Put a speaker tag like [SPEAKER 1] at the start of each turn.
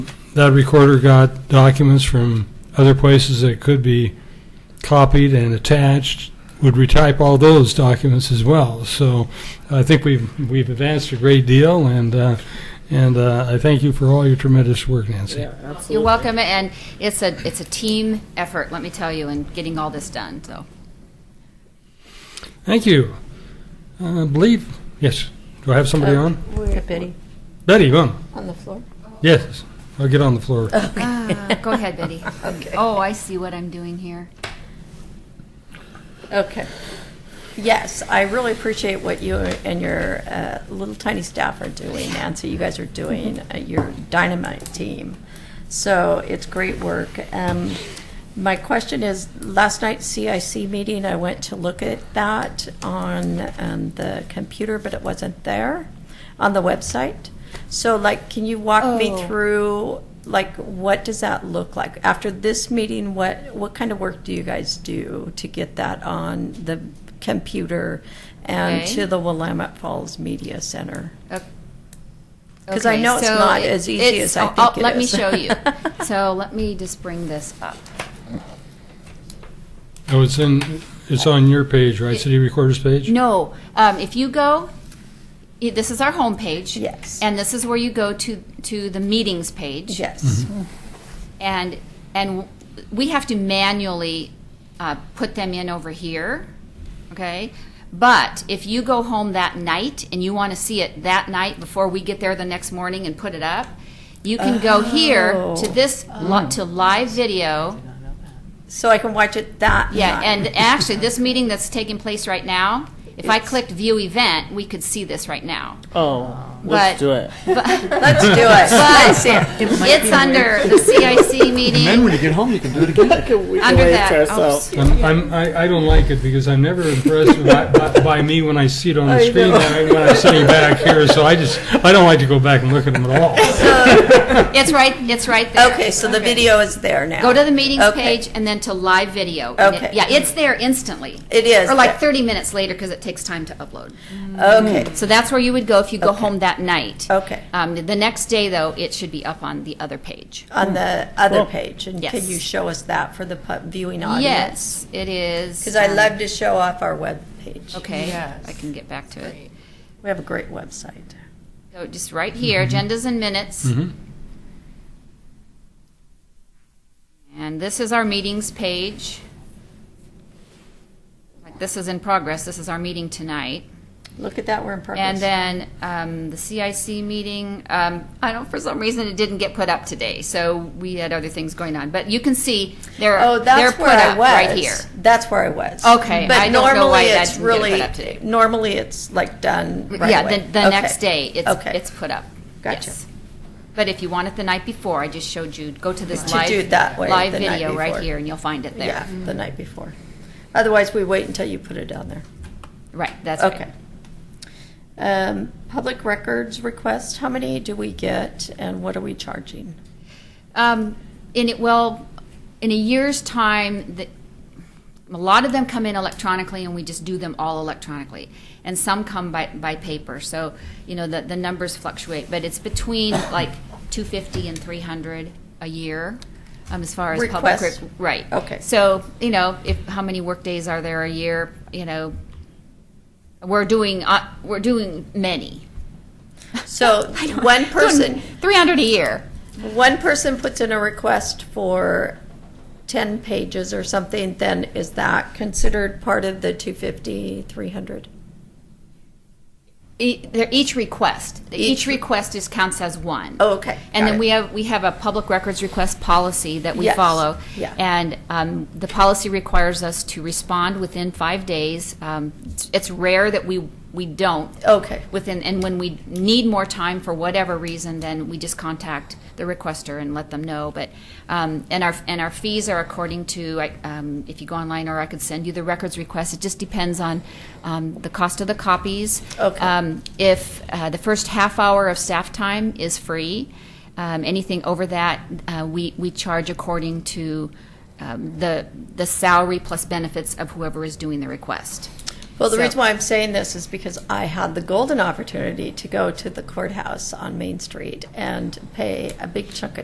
[SPEAKER 1] that recorder got documents from other places that could be copied and attached, would retype all those documents as well. So I think we've, we've advanced a great deal, and, uh, and uh, I thank you for all your tremendous work, Nancy.
[SPEAKER 2] absolutely.
[SPEAKER 3] You're welcome, and it's a, it's a team effort, let me tell you, in getting all this done, so.
[SPEAKER 1] Thank you. I believe, yes, do I have somebody
[SPEAKER 4] Uh,
[SPEAKER 1] on?
[SPEAKER 4] we're-
[SPEAKER 5] Betty,
[SPEAKER 1] Betty, on.
[SPEAKER 4] On the floor?
[SPEAKER 1] Yes, I'll get on the floor.
[SPEAKER 3] Ah, Go ahead, Betty.
[SPEAKER 4] Okay.
[SPEAKER 3] Oh, I see what I'm doing here.
[SPEAKER 4] Okay. Yes, I really appreciate what you and your uh, little tiny staff are doing, Nancy. You guys are doing uh, your dynamite team. So it's great work. Um, my question is last night's CIC meeting, I went to look at that on um, the computer, but it wasn't there on the website. So, like, can you walk me
[SPEAKER 3] Oh.
[SPEAKER 4] through? Like, what does that look like after this meeting? What what kind of work do you guys do to get that on the computer and
[SPEAKER 3] Okay.
[SPEAKER 4] to the Willamette Falls Media Center?
[SPEAKER 3] Because
[SPEAKER 4] I know it's not as easy as I think it
[SPEAKER 3] oh, Let me
[SPEAKER 4] is.
[SPEAKER 3] show you. So let me just bring this up.
[SPEAKER 1] Oh, it's in, it's on your page, right, city recorder's page?
[SPEAKER 3] No, um, if you go, i- this is our homepage.
[SPEAKER 4] Yes.
[SPEAKER 3] And this is where you go to, to the meetings page.
[SPEAKER 4] Yes.
[SPEAKER 3] Mm-hmm. And, and we have to manually uh, put them in over here, okay? But if you go home that night and you want to see it that night before we get there the next morning and put it up, you can go here
[SPEAKER 4] Oh.
[SPEAKER 3] to this, li- to live video.
[SPEAKER 4] So I can watch it that.
[SPEAKER 3] Yeah,
[SPEAKER 4] night.
[SPEAKER 3] and actually, this meeting that's taking place right now, if I
[SPEAKER 4] It's-
[SPEAKER 3] clicked view event, we could see this right now.
[SPEAKER 2] Oh, let's
[SPEAKER 3] But-
[SPEAKER 2] do it.
[SPEAKER 4] let's do it.
[SPEAKER 3] But it's under the CIC meeting.
[SPEAKER 6] Then when you get home, you can do it again.
[SPEAKER 3] Under
[SPEAKER 2] Wait
[SPEAKER 3] that,
[SPEAKER 2] for us out.
[SPEAKER 3] oops.
[SPEAKER 1] I'm, I'm, I, I don't like it because I'm never impressed with- by, by, by me when I see it on the screen than I- when I'm sitting back here. So I just, I don't like to go back and look at them at all.
[SPEAKER 3] It's right, it's right there.
[SPEAKER 4] Okay, so the video is there now.
[SPEAKER 3] Go to the meetings
[SPEAKER 4] Okay.
[SPEAKER 3] page and then to live video. And it-
[SPEAKER 4] Okay.
[SPEAKER 3] Yeah, it's there instantly.
[SPEAKER 4] It is
[SPEAKER 3] Or like
[SPEAKER 4] there.
[SPEAKER 3] 30 minutes later because it takes time to upload.
[SPEAKER 4] Okay.
[SPEAKER 3] So that's where you would go if you go home that night.
[SPEAKER 4] Okay.
[SPEAKER 3] Um, The next day, though, it should be up on the other page.
[SPEAKER 4] On the other page, and
[SPEAKER 3] Yes.
[SPEAKER 4] can you show us that for the pu- viewing audience?
[SPEAKER 3] Yes, it is.
[SPEAKER 4] Because I
[SPEAKER 3] um,
[SPEAKER 4] love to show off our web page.
[SPEAKER 3] Okay,
[SPEAKER 5] Yes.
[SPEAKER 3] I can get back to it.
[SPEAKER 4] We have a great website.
[SPEAKER 3] So just right here,
[SPEAKER 4] Mm-hmm.
[SPEAKER 3] agendas and minutes.
[SPEAKER 1] Mm-hmm.
[SPEAKER 4] Mm-hmm.
[SPEAKER 3] And this is our meetings page. Like, This is in progress, this is our meeting tonight.
[SPEAKER 4] Look at that, we're in
[SPEAKER 3] And
[SPEAKER 4] progress.
[SPEAKER 3] then um, the CIC meeting, um, I don't, for some reason, it didn't get put up today, so we had other things going on. But you can see, they're,
[SPEAKER 4] oh,
[SPEAKER 3] they're
[SPEAKER 4] that's
[SPEAKER 3] put
[SPEAKER 4] where I
[SPEAKER 3] up
[SPEAKER 4] was.
[SPEAKER 3] right here.
[SPEAKER 4] That's where I was.
[SPEAKER 3] Okay,
[SPEAKER 4] but
[SPEAKER 3] I don't know
[SPEAKER 4] normally
[SPEAKER 3] why that
[SPEAKER 4] it's
[SPEAKER 3] didn't get it put
[SPEAKER 4] really
[SPEAKER 3] up today.
[SPEAKER 4] normally it's like done. Right
[SPEAKER 3] Yeah,
[SPEAKER 4] away.
[SPEAKER 3] the, the
[SPEAKER 4] Okay.
[SPEAKER 3] next day, it's,
[SPEAKER 4] okay.
[SPEAKER 3] it's put up.
[SPEAKER 4] Gotcha.
[SPEAKER 3] Yes. But if you want it the night before, I just showed you, go to this
[SPEAKER 4] To
[SPEAKER 3] live.
[SPEAKER 4] do that way,
[SPEAKER 3] Live
[SPEAKER 4] the night
[SPEAKER 3] video right
[SPEAKER 4] before.
[SPEAKER 3] here, and you'll find it
[SPEAKER 4] yeah,
[SPEAKER 3] there.
[SPEAKER 4] the night before. Otherwise, we wait until you put it down there.
[SPEAKER 3] Right, that's right.
[SPEAKER 4] Okay. Um, public records request. How many do we get, and what are we charging?
[SPEAKER 3] Um, in it, well, in a year's time, the, a lot of them come in electronically, and we just do them all electronically. And some come by, by paper, so, you know, the, the numbers fluctuate, but it's between like two fifty and three hundred a year, um, as far as public.
[SPEAKER 4] Requests.
[SPEAKER 3] rec- Right.
[SPEAKER 4] Okay.
[SPEAKER 3] So, you know, if, how many workdays are there a year, you know? We're doing, uh, we're doing many.
[SPEAKER 4] So one person,
[SPEAKER 3] Three hundred a year.
[SPEAKER 4] one person puts in a request for 10 pages or something, then is that considered part of the 250, 300?
[SPEAKER 3] E- they're each request. Each
[SPEAKER 4] Each-
[SPEAKER 3] request is counts as one.
[SPEAKER 4] Oh, okay.
[SPEAKER 3] And
[SPEAKER 4] Got
[SPEAKER 3] then
[SPEAKER 4] it.
[SPEAKER 3] we have, we have a public records request policy that we
[SPEAKER 4] Yes.
[SPEAKER 3] follow.
[SPEAKER 4] Yeah.
[SPEAKER 3] And um, the policy requires us to respond within five days. Um, it's- It's rare that we, we don't
[SPEAKER 4] Okay,
[SPEAKER 3] within, and when we need more time for whatever reason, then we just contact the requester and let them know. But, um, and our, and our fees are according to, I- um, if you go online, or I could send you the records request. It just depends on um, the cost of the copies.
[SPEAKER 4] Okay.
[SPEAKER 3] Um, If uh, the first half hour of staff time is free, um, anything over that, uh, we, we charge according to um, the, the salary plus benefits of whoever is doing the request.
[SPEAKER 4] well, the
[SPEAKER 3] So-
[SPEAKER 4] reason why I'm saying this is because I had the golden opportunity to go to the courthouse on Main Street and pay a big chunk of